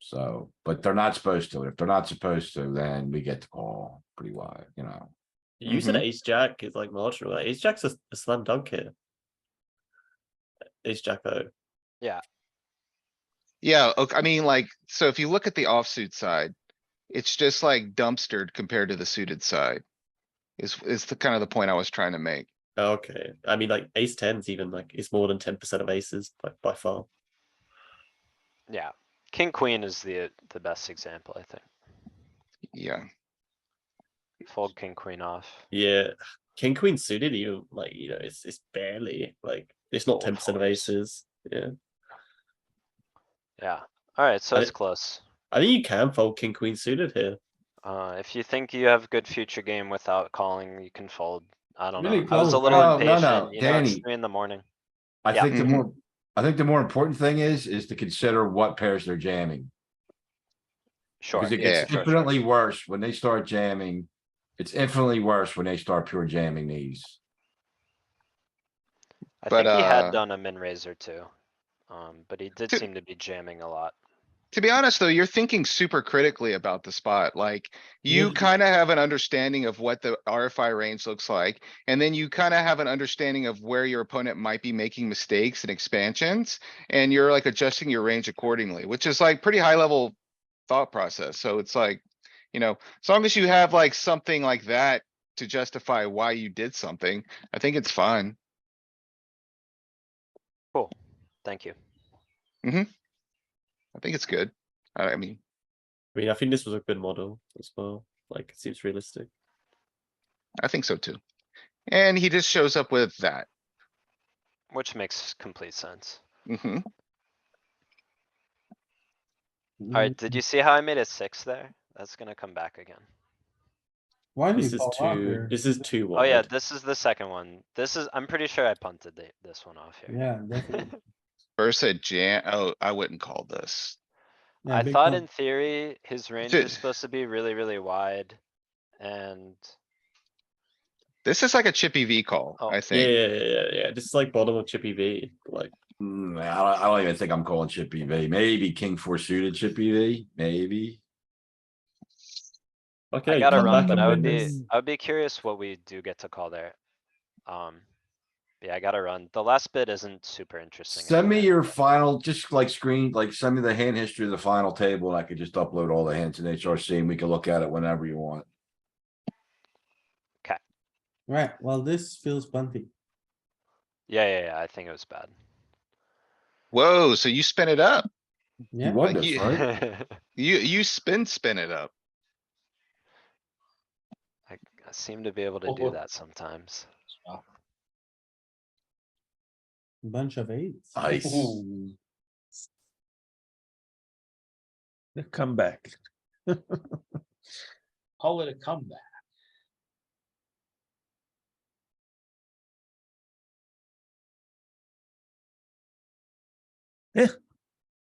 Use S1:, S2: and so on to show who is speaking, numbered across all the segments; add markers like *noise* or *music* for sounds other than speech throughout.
S1: So, but they're not supposed to. If they're not supposed to, then we get to call pretty wide, you know.
S2: You said ace jack is like marginal. Like, ace jack's a, a slam dunk here. Ace jack though.
S3: Yeah, ok- I mean, like, so if you look at the offsuit side, it's just like dumpstered compared to the suited side. Is, is the kind of the point I was trying to make.
S2: Oh, Okay, I mean like ace tens even like it's more than ten percent of aces by, by far.
S4: Yeah, king, queen is the, the best example, I think.
S3: Yeah,
S4: Fold king, queen off.
S2: Yeah, king queen suited even like you know it's it's barely like it's not
S4: Fold
S2: ten percent of
S4: fours.
S2: aces. Yeah,
S4: Yeah, alright, so
S2: I-
S4: it's close.
S2: I think you can fold king queen suited here.
S4: Uh, if you think you have good future game without calling, you can fold. I don't
S1: Really
S4: know. I was a
S1: close.
S4: little
S1: No, no, no,
S4: impatient, you know, it's
S1: Danny.
S4: three in the morning.
S1: I
S4: Yeah.
S1: think the
S3: Mhm.
S1: more, I think the more important thing is, is to consider what pairs they're jamming.
S4: Sure.
S1: Because it
S3: Yeah.
S1: gets
S4: sure, sure,
S1: infinitely
S4: sure.
S1: worse when they start jamming. It's infinitely worse when they start pure jamming these.
S4: I
S3: but,
S4: think he had
S3: uh,
S4: done a min raiser too. Um, but he did
S3: Two-
S4: seem to be jamming a lot.
S3: to be honest, though, you're thinking super critically about the spot, like, you
S2: Yeah.
S3: kinda have an understanding of what the RFI range looks like. And then you kinda have an understanding of where your opponent might be making mistakes and expansions, and you're like adjusting your range accordingly, which is like pretty high level thought process, so it's like, you know, as long as you have like something like that to justify why you did something, I think it's fine.
S4: Thank you.
S3: I think it's good. I I mean,
S2: I mean I think this was a good model as well. Like it seems realistic.
S3: I think so too. And he just shows up with that.
S4: Which makes complete sense.
S3: hmm
S4: Alright,
S1: Mm-hmm.
S4: did you see how I made a six there? That's gonna come back again.
S5: Why do
S2: This
S5: you
S2: is
S5: call out
S2: too.
S5: here?
S2: This is too
S4: Oh yeah,
S2: wide.
S4: this is the second one. This is, I'm pretty sure I punted the, this one off here.
S5: Yeah, definitely.
S3: Versa jam, oh, I wouldn't call this.
S5: Yeah,
S4: I
S5: big
S4: thought
S5: time.
S4: in theory, his range
S3: Ju-
S4: is supposed to be really, really wide. And
S3: This is like a chippy V call,
S4: Oh.
S3: I
S2: Yeah,
S3: think.
S2: yeah, yeah, yeah, yeah. This is like bottom of chippy V. Like
S1: Hmm, I don't, I don't even think I'm calling chip E V. Maybe king four suited chip E V, maybe.
S2: okay,
S4: I gotta
S2: come
S4: run,
S2: back
S4: but
S2: and
S4: I would
S2: win
S4: be,
S2: this.
S4: I would be curious what we do get to call there. Um, yeah, I gotta run. The last bit isn't super interesting.
S1: Send me
S4: anyway.
S1: your final, just like screen, like send me the hand history of the final table and I could just upload all the hands in HRC and we can look at it whenever you want.
S5: Right, well, this feels bumpy.
S4: Yeah, yeah, yeah, I think it was bad.
S3: Whoa, so you spin it up.
S1: You
S5: Yeah,
S1: won
S3: Like
S1: this,
S3: you-
S4: *laughs*
S1: right?
S3: You, you spin, spin it up.
S4: I I seem to be able to do
S5: Oh.
S4: that sometimes.
S5: bunch of eights.
S1: Nice.
S5: Ooh.
S6: The
S5: *laughs*
S6: comeback.
S7: Call it a comeback.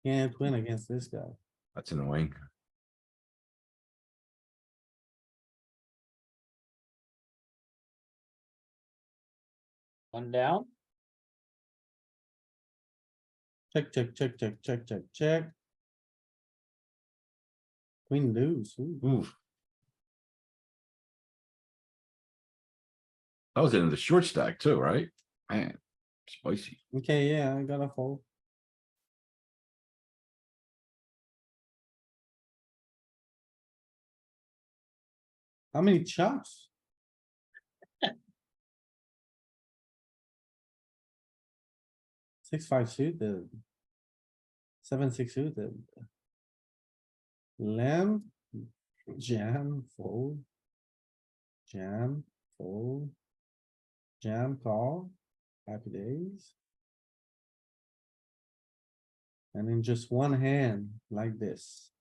S5: Can't win against this guy.
S1: That's annoying.
S7: One down.
S5: Check, check, check, check, check, check, check. Queen deuce, ooh.
S1: Oof. That was into the short stack too, right? Man, spicy.
S5: okay, yeah, I gotta fold. How many chops? Six, five suited. Seven, six suited. Lamb, jam, fold. Jam, fold. Jam, call, happy days. And in just one hand like this,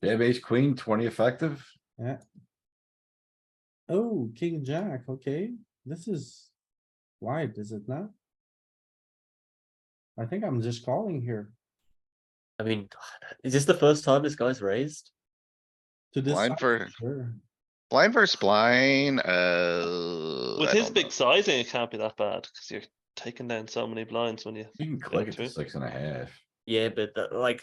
S1: They have ace queen, twenty effective.
S5: oh, king, jack, okay, this is wide, is it not? I think I'm just calling here
S2: I mean, is this the first time this guy's raised?
S5: to this.
S3: Blind
S5: side,
S3: for-
S5: Sure.
S3: Blind versus blind, uh.
S8: With
S3: I
S8: his
S3: don't
S8: big
S3: know.
S8: sizing, it can't be that bad because you're taking down so many blinds when you
S1: You can click it
S8: true.
S1: to six and a half.
S2: Yeah, but that, like